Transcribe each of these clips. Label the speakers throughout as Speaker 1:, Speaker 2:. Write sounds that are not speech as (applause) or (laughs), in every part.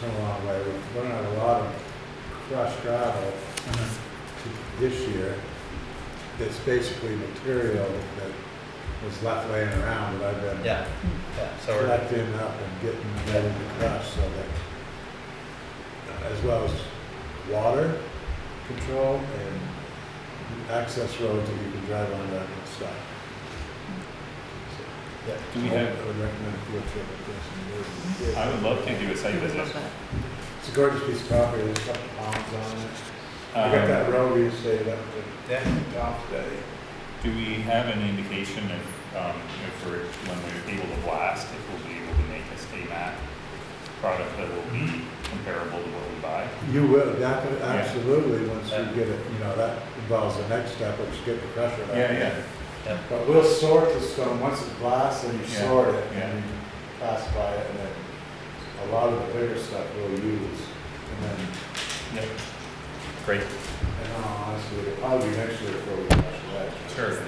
Speaker 1: come a long way. We've run out a lot of crushed gravel to- this year that's basically material that was left laying around that I've been
Speaker 2: Yeah, yeah, so we're,
Speaker 1: collecting up and getting ready to crush so that, uh, as well as water control and access roads that you can drive on that and stuff. So,
Speaker 2: yeah,
Speaker 3: Do we
Speaker 1: I
Speaker 3: have,
Speaker 1: would recommend a field trip with this. and
Speaker 3: I would love to do a
Speaker 4: I
Speaker 3: site
Speaker 4: would
Speaker 3: visit.
Speaker 4: love that.
Speaker 1: It's a gorgeous piece of property, there's a couple ponds on it. I got
Speaker 3: Um,
Speaker 1: that road you saved up to
Speaker 2: yeah,
Speaker 1: top today.
Speaker 3: Do we have an indication if, um, if we're, when we're able to blast, if we'll be able to make a state map product that will be
Speaker 4: Mm-hmm.
Speaker 3: comparable to what we buy?
Speaker 1: You will, definitely, absolutely, once you get it, you know, that involves the next step, which is get the pressure. out.
Speaker 3: Yeah,
Speaker 2: yeah,
Speaker 1: But we'll sort the stone, once it's glass, and you
Speaker 3: Yeah,
Speaker 1: sort it,
Speaker 3: yeah.
Speaker 1: and you classify it, and then a lot of the bigger stuff we'll use. And then,
Speaker 3: yeah. Great.
Speaker 1: and honestly, it'll probably be next year before we crush that.
Speaker 3: Sure.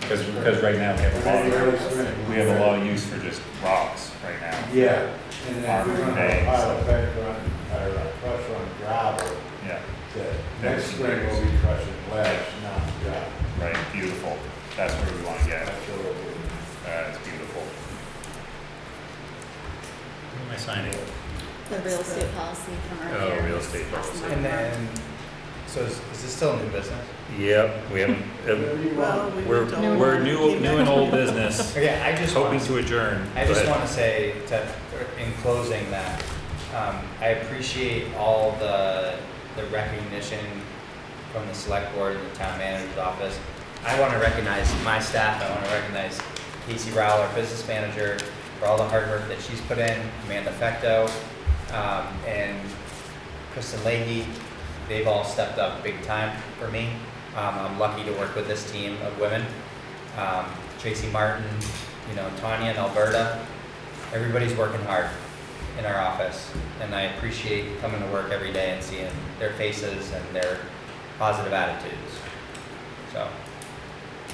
Speaker 3: Because, because right now we have a
Speaker 1: Early-
Speaker 3: lot,
Speaker 1: early spring.
Speaker 3: of- we have a lot of use for just rocks right now.
Speaker 1: Yeah, and then if we're gonna have a
Speaker 3: Farming
Speaker 1: pile of paper on, or a crusher on gravel,
Speaker 3: Yeah,
Speaker 1: that next spring we'll be crushing ledge, not gravel.
Speaker 3: right, beautiful. That's where we want to get.
Speaker 1: That's what we'll do.
Speaker 3: Uh, it's beautiful. Who am I signing?
Speaker 4: The real estate policy from
Speaker 3: Oh,
Speaker 4: earlier.
Speaker 3: real estate policy.
Speaker 2: and then, so is, is this still new business?
Speaker 3: Yep, we haven't,
Speaker 1: Whatever you want.
Speaker 3: We're,
Speaker 4: No,
Speaker 3: we're
Speaker 4: no.
Speaker 3: new, new and old business, (laughs)
Speaker 2: Okay, I just
Speaker 3: hoping
Speaker 2: want,
Speaker 3: to adjourn.
Speaker 2: I
Speaker 3: Go
Speaker 2: just
Speaker 3: ahead.
Speaker 2: want to say that, in closing, that, um, I appreciate all the, the recognition from the select board and the town manager's office. I want to recognize my staff, I want to recognize Casey Rowell, our business manager, for all the hard work that she's put in, Amanda Fecto, um, and Kristen Leahy, they've all stepped up big time for me. Um, I'm lucky to work with this team of women. Um, Tracy Martin, you know, Tanya and Alberta, everybody's working hard in our office. And I appreciate coming to work every day and seeing their faces and their positive attitudes. So,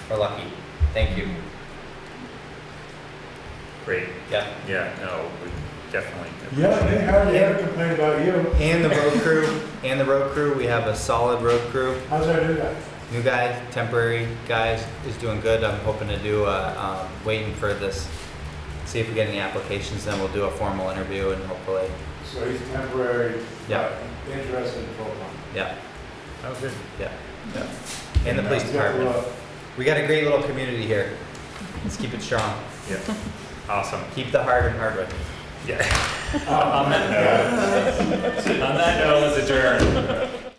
Speaker 2: we're lucky. Thank you.
Speaker 3: Great,
Speaker 2: Yep.
Speaker 3: yeah, no, we definitely.
Speaker 1: Yeah,
Speaker 3: appreciate
Speaker 1: they
Speaker 3: it.
Speaker 1: hardly ever complain about you.
Speaker 2: And the road crew, and the road crew, we have a solid road crew.
Speaker 1: How's our new guy?
Speaker 2: New guy, temporary guy is doing good. I'm hoping to do, uh, um, waiting for this, see if we get any applications, then we'll do a formal interview and hopefully,
Speaker 1: So he's temporary.
Speaker 2: Yeah.
Speaker 1: but Interested in full time.
Speaker 2: yeah,
Speaker 3: Oh, good.
Speaker 2: yeah, yeah. And the police
Speaker 1: He's got
Speaker 2: department.
Speaker 1: love.
Speaker 2: We got a great little community here. Let's keep it strong.
Speaker 3: Yeah, awesome,
Speaker 2: Keep the heart in Hardwick.
Speaker 3: yeah.
Speaker 1: (laughs) Um,
Speaker 3: (laughs) On that note,